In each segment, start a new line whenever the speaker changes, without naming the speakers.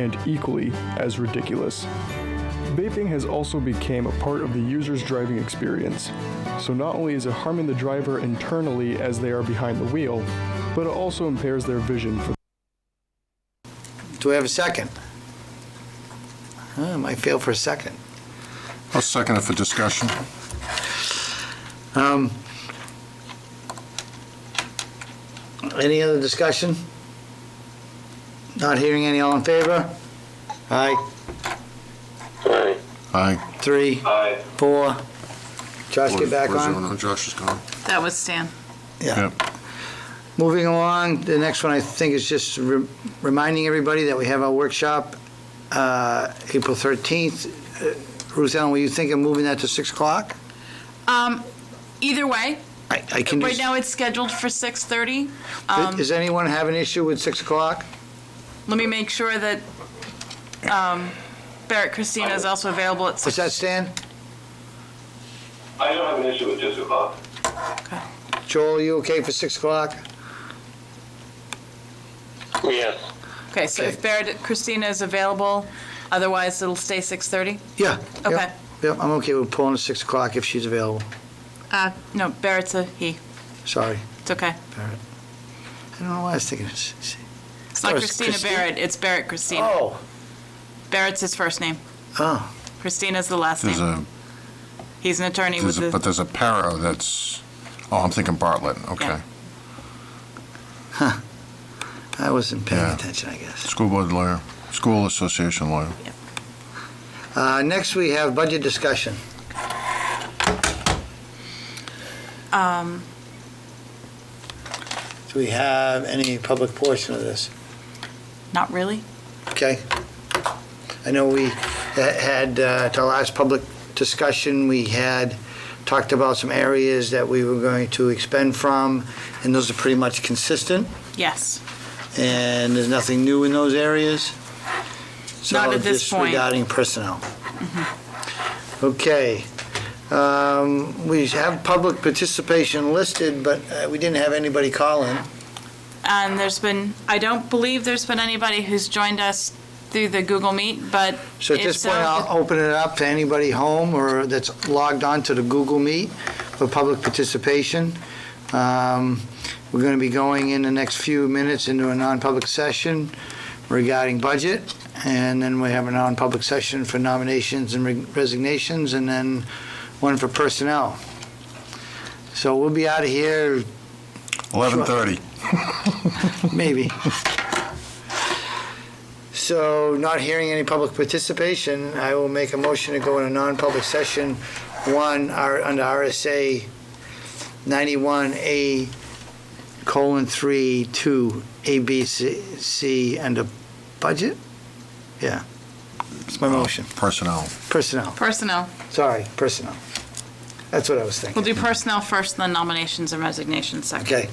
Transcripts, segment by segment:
and equally as ridiculous. Vaping has also become a part of the user's driving experience. So not only is it harming the driver internally as they are behind the wheel, but it also impairs their vision for
Do we have a second? Huh, might fail for a second.
I'll second it for discussion.
Um, Any other discussion? Not hearing any, all in favor? Aye,
Aye.
Aye.
three,
Aye.
four. Josh, get back
Where's
on.
everyone? Josh is gone.
That was Stan.
Yeah. Moving along, the next one I think is just re- reminding everybody that we have our workshop, uh, April 13th. Uh, Ruth Ellen, were you thinking of moving that to 6 o'clock?
Um, either way,
I I can
right
just,
now it's scheduled for six thirty.
Does-
Um,
does anyone have an issue with 6 o'clock?
let me make sure that, um, Barrett Christina is also available at
Does
six.
that stand?
I don't have an issue with just o'clock.
Joel, you okay for 6 o'clock?
Yes.
Okay, so
okay.
if Barrett Christina is available, otherwise it'll stay six thirty?
Yeah. Yep.
Okay.
Yep, I'm okay with pulling to 6 o'clock if she's available.
Uh, no, Barrett's a he.
Sorry.
It's okay.
I don't know why I was thinking. it's- it's-
It's not
Oh, it's
Christina
Christi-
Barrett, it's Barrett Christina.
Oh,
Barrett's his first name.
oh,
Christina's the last
There's
name.
a,
He's an attorney with
there's a, but
the,
there's a para that's, oh, I'm thinking Bartlett, okay.
Yeah.
I wasn't paying
Yeah.
attention, I guess.
School board lawyer, school association lawyer.
Uh, Next, we have budget discussion.
um,
Do we have any public portion of this?
not really.
Okay. I know we ha- had, uh, at our last public discussion, we had talked about some areas that we were going to expend from, and those are pretty much consistent,
Yes.
and there's nothing new in those areas. So
Not at this
just
point.
regarding personnel. Okay. Um, We have public participation listed, but uh, we didn't have anybody call in.
And there's been, I don't believe there's been anybody who's joined us through the Google Meet, but uh,
So at
If
this
so,
point,
the-
I'll open it up to anybody home or that's logged on to the Google Meet for public participation. Um, We're going to be going in the next few minutes into a non-public session regarding budget, and then we have a non-public session for nominations and re- resignations, and then one for personnel. So we'll be out of here,
11:30.
maybe. So, not hearing any public participation, I will make a motion to go in a non-public session, one, our- under RSA 91A colon 3, 2, A, B, C, C, and a budget? Yeah. It's my motion.
Personnel.
Personnel,
personnel,
sorry, personnel. That's what I was thinking.
we'll do personnel first, then nominations and resignations second.
Okay.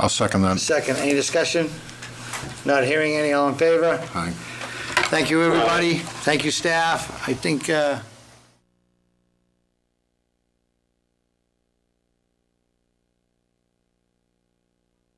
I'll second that.
Second, any discussion? Not hearing any, all in favor?
Aye.
Thank you, everybody. Thank you, staff. I think uh,